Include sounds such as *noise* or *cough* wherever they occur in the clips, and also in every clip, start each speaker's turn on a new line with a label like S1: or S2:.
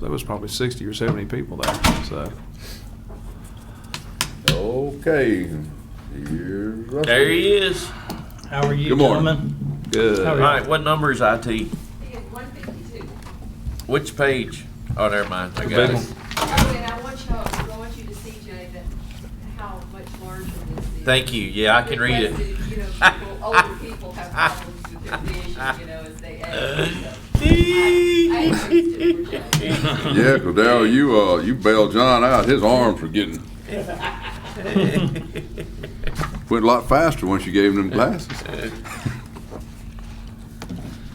S1: there was probably sixty or seventy people there, so.
S2: Okay, here's Russell.
S3: There he is.
S4: How are you,
S2: Good morning.
S4: gentlemen?
S3: All
S2: Oh,
S1: Good.
S3: right, what number is IT?
S5: It is one fifty-two.
S3: Which page? Oh, never mind, I
S1: Big
S3: got
S1: one.
S3: it.
S5: Oh, and I want you, I want you to see, Jay, that how much larger this is.
S3: Thank you, yeah, I can read it.
S5: Because, You know,
S3: *laughs*
S5: people, older people have problems with their vision, you know, as they age.
S3: *laughs*
S5: so. I agree with you, Jay.
S2: Yeah, Cordell, you, uh, you bailed John out, his arms were getting, went a lot faster once you gave him them glasses.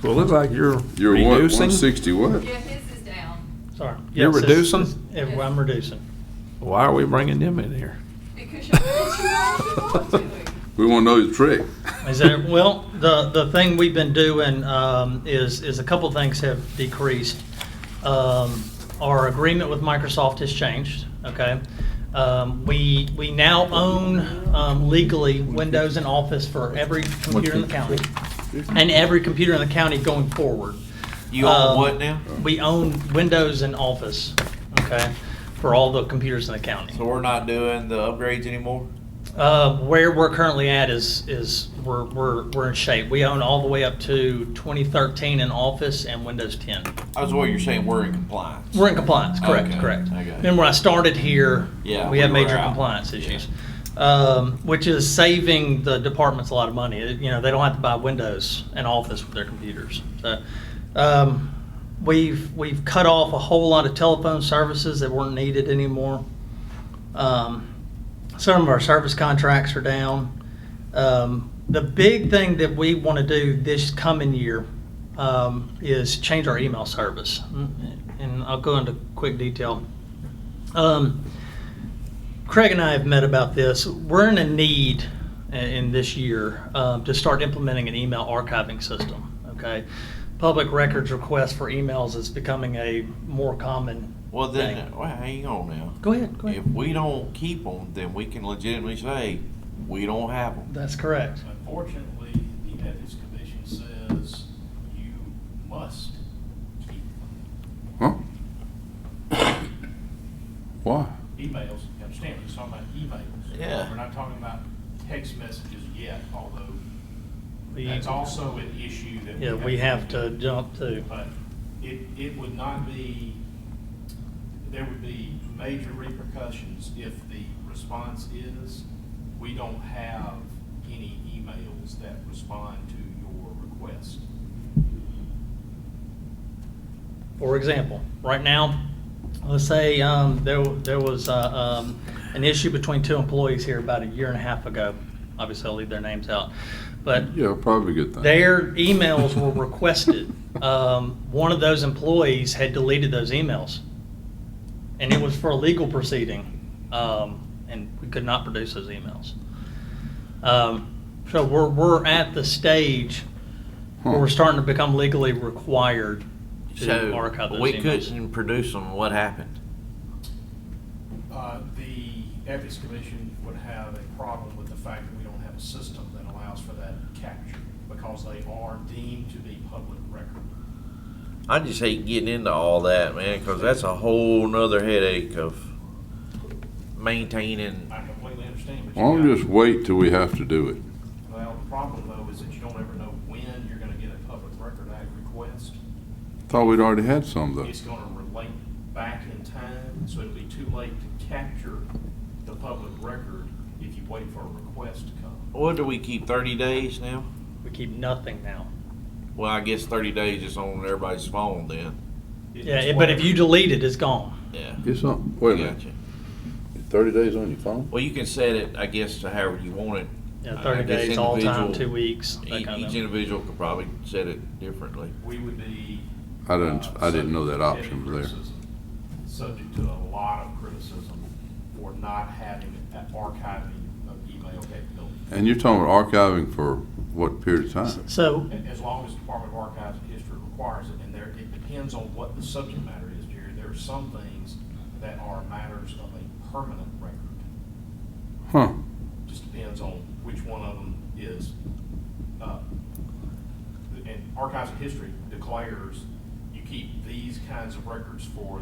S1: Well, it looks like you're
S2: You're what, one
S1: reducing.
S2: sixty what?
S5: Yeah, his is down
S4: Sorry.
S1: You're
S4: Yes, it's-
S1: reducing?
S4: it's- yeah, well, I'm reducing.
S1: Why are we bringing them in here?
S5: because you're, because you're doing.
S2: We wanna know the trick.
S4: Is there, well, the, the thing we've been doing um, is, is a couple of things have decreased. Um, Our agreement with Microsoft has changed, okay? Um, We, we now own um, legally Windows and Office for every computer in the county, and every computer in the county going forward.
S3: You on
S4: Um,
S3: what now?
S4: We own Windows and Office, okay, for all the computers in the county.
S3: So we're not doing the upgrades anymore?
S4: Uh, where we're currently at is, is we're, we're, we're in shape. We own all the way up to 2013 in Office and Windows 10.
S3: I was what you're saying, we're in compliance.
S4: We're in compliance, correct,
S3: Okay,
S4: correct.
S3: I got it.
S4: And when I started here,
S3: Yeah,
S4: we had
S3: we were
S4: major
S3: out.
S4: compliance issues. Um, which is saving the departments a lot of money. It- You know, they don't have to buy Windows and Office with their computers. So, um, we've, we've cut off a whole lot of telephone services that weren't needed anymore. Um, some of our service contracts are down. Um, the big thing that we want to do this coming year um, is change our email service. Mm, And I'll go into quick detail. Um, Craig and I have met about this. We're in a need i- in this year um, to start implementing an email archiving system. Okay, public records requests for emails is becoming a more common.
S3: Well, then, uh,
S4: thing.
S3: well, hang on now.
S4: go ahead. Go ahead.
S3: If we don't keep them, then we can legitimately say, we don't have them.
S4: That's correct.
S6: Unfortunately, the ethics commission says you must keep
S2: Huh? Why?
S6: emails, you understand, we're talking about emails.
S3: Yeah.
S6: We're not talking about text messages yet, although
S4: We-
S6: that's also an issue that.
S4: Yeah, we have to jump to.
S6: But it, it would not be, there would be major repercussions if the response is, we don't have any emails that respond to your request.
S4: For example, right now, let's say um, there, there was uh, um, an issue between two employees here about a year and a half ago. Obviously, I'll leave their names out. But
S2: Yeah, probably a good thing.
S4: their emails were
S2: *laughs*
S4: requested. Um, One of those employees had deleted those emails. And it was for a legal proceeding, um, and we could not produce those emails. Um, So we're, we're at the stage where we're
S2: Huh.
S4: starting to become legally required to archive
S3: So
S4: those
S3: we
S4: emails.
S3: couldn't produce them, what happened?
S6: Uh, The ethics commission would have a problem with the fact that we don't have a system that allows for that capture because they are deemed to be public record.
S3: I just hate getting into all that, man, because that's a whole nother headache of maintaining.
S6: I completely understand, but you
S2: Why don't we
S6: got-
S2: just wait till we have to do it?
S6: Well, the problem though is that you don't ever know when you're gonna get a public record act request.
S2: Thought we'd already had some though.
S6: It's gonna relate back in time, so it'll be too late to capture the public record if you wait for a request to come.
S3: What do we keep, 30 days now?
S4: We keep nothing now.
S3: Well, I guess 30 days is on everybody's phone then.
S6: It-
S4: Yeah,
S6: it's
S4: it- but if
S6: whatever.
S4: you delete it, it's gone.
S3: Yeah.
S2: Get some, wait a
S3: I
S2: minute,
S3: gotcha.
S2: thirty days on your phone?
S3: Well, you can set it, I guess, to however you want it.
S4: You know,
S3: I
S4: Thirty
S3: guess
S4: days, all time,
S3: Uh, individual-
S4: two weeks,
S3: E-
S4: that kind of
S3: Each
S4: thing.
S3: individual could probably set it differently.
S6: We would be.
S2: I didn't,
S6: uh,
S2: I didn't know that
S6: subject to
S2: option was there.
S6: criticism- Subject to a lot of criticism for not having that archiving of email capability.
S2: And you're talking about archiving for what period of time?
S4: So,
S6: A- As long as Department of Archives and History requires it, and there, it depends on what the subject matter is, Jerry. There are some things that are matters of a permanent record.
S2: Huh,
S6: Just depends on which one of them is, uh, and Archives and History declares you keep these kinds of records for